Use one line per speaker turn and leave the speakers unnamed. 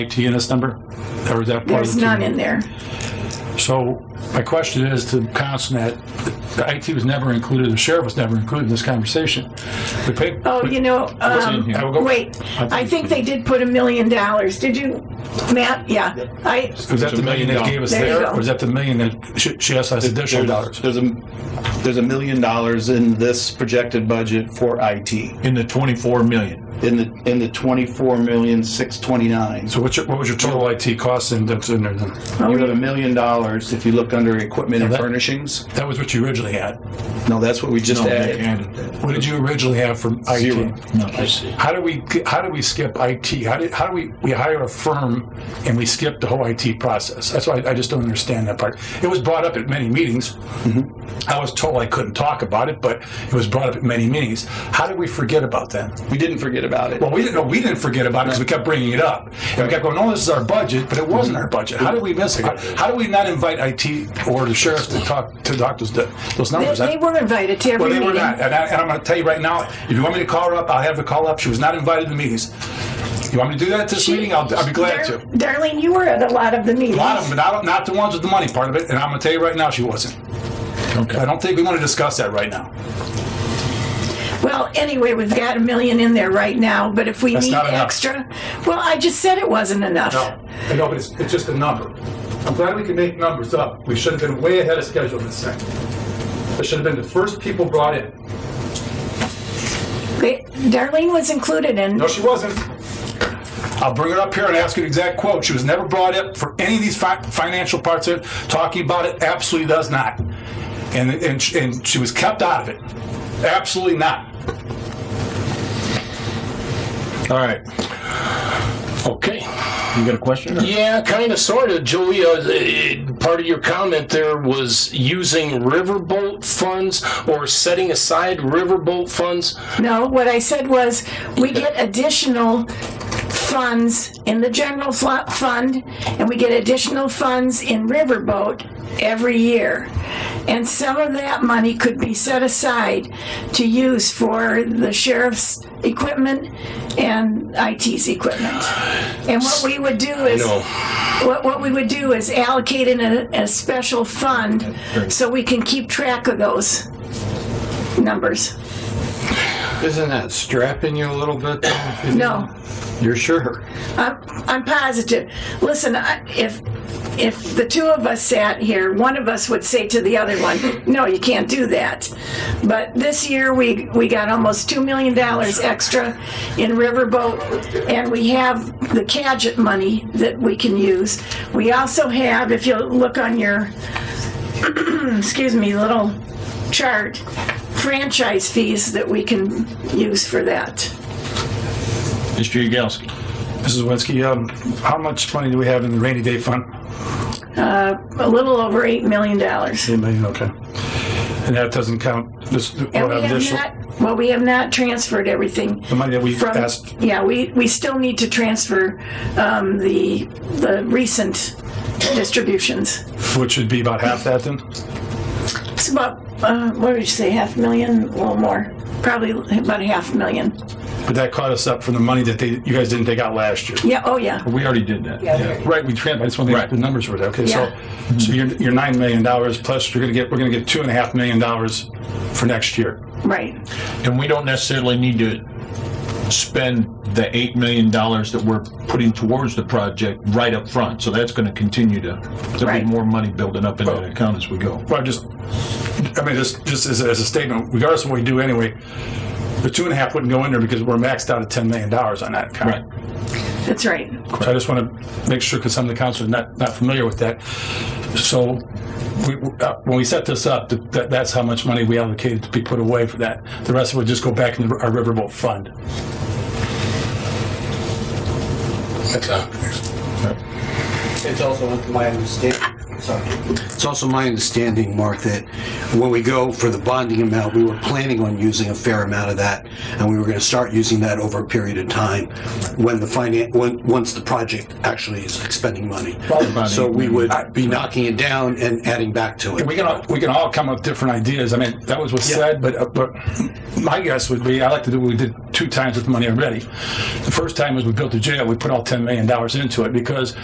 TNS number? Or is that part of
There's
the?
none in there.
So my question is to council that the IT was never included, the sheriff was never included in this conversation. We paid,
Oh, you know, um,
here? I will go-
wait, I think they did put a million dollars. Did you, Matt? Yeah, I,
was that the million they gave us
There you
there?
go.
Or is that the million that she- she asked us additional
There's,
dollars?
there's a there's a million dollars in this projected budget for IT
in the 24 million.
in the in the twenty four million six twenty nine.
So what's your, what was your total IT cost in, that's in there then?
You have a million dollars if you look under equipment and
that-
furnishings.
That was what you originally had.
No, that's what we just
No, they
added.
added that.
What did you originally have from IT?
Zero.
No, I see.
How do we, how do we skip IT? How do, how do we, we hire a firm and we skip the whole IT process? That's why I just don't understand that part. It was brought up at many meetings. I was told I couldn't talk about it, but it was brought up at many meetings. How did we forget about that?
We didn't forget about it.
Well, we didn't, no, we didn't forget about it because we kept bringing it up. And we kept going, oh, this is our budget, but it wasn't our budget. How did we miss it? How- How do we not invite IT or the sheriff to talk, to talk those, those
they,
numbers?
they were invited to
Well, they
every
were
meeting.
not. And, I, and I'm going to tell you right now, if you want me to call her up, I'll have her call up. She was not invited to the meetings. You want me to do that at this meeting? I'll, I'll be glad
Dar-
to.
Darlene, you were at a lot of the meetings.
A lot of them, but not, not the ones with the money part of it. And I'm going to tell you right now, she wasn't. I
Okay.
don't think we want to discuss that right now.
Well, anyway, we've got a million in there right now, but if we
That's
need
not enough.
extra, well, I just said it wasn't enough.
No, I know, but it's, it's just a number. I'm glad we can make numbers up. We should have been way ahead of schedule this thing. This should have been the first people brought in.
They- Darlene was included in,
No, she wasn't. I'll bring her up here and ask you an exact quote. She was never brought up for any of these fi- financial parts of it. Talking about it absolutely does not. And, and, sh- and she was kept out of it. Absolutely not.
All right.
Okay.
You got a question? or-
Yeah, kind of, sort of. Julia, uh, part of your comment there was using riverboat funds or setting aside riverboat funds.
no, what I said was, we get additional funds in the general fl- fund, and we get additional funds in Riverboat every year. And some of that money could be set aside to use for the sheriff's equipment and IT's equipment. And what we would do is,
No.
What, what we would do is allocate in a, a special fund so we can keep track of those numbers.
Isn't that strapping you a little bit? though?
No,
You're sure?
I'm, I'm positive. Listen, I- if, if the two of us sat here, one of us would say to the other one, no, you can't do that. But this year, we, we got almost $2 million extra in Riverboat, and we have the Cadget money that we can use. We also have, if you look on your, excuse me, little chart, franchise fees that we can use for that.
Mr. Yagowski.
Mrs. Winsky, um, how much money do we have in the rainy day fund?
A little over $8 million.
Eight million, okay. And that doesn't count this, we'll
And we
have
have
additional,
not, well, we have not transferred everything.
the money that we
from-
asked.
Yeah, we, we still need to transfer um, the, the recent distributions.
Which would be about half that then?
It's about, uh, what did you say, half a million, a little more? Probably about a half million.
But that caught us up from the money that they, you guys didn't take out last year.
Yeah, oh yeah.
We already did that.
Right, we trans, I just want to make
Right.
the numbers were there. Okay, so,
Yeah.
so you're, you're nine million dollars plus you're gonna get, we're gonna get two and a half million dollars for next year.
Right,
And we don't necessarily need to spend the $8 million that we're putting towards the project right up front. So that's going to continue to, there'll be
Right.
more money building up in that account as we go.
Well, just, I mean, just, just as, a- as a statement, regardless of what we do anyway, the two and a half wouldn't go in there because we're maxed out at ten million dollars on that account.
Right.
that's right.
So I just want to make sure, because some of the council are not, not familiar with that. So we, uh, when we set this up, th- that, that's how much money we allocated to be put away for that. The rest would just go back in our riverboat fund.
It's also my understanding, sorry,
It's also my understanding, Mark, that
when we go for the bonding amount, we were planning on using a fair amount of that, and we were going to start using that over a period of time when the finance, when, once the project actually is expending money. So we would be knocking it down and adding back to it.
we can all, we can all come up with different ideas. I mean, that was what's said, but uh, but my guess would be I like to do what we did two times with money already. The first time was we built the jail. We put all ten million dollars into it because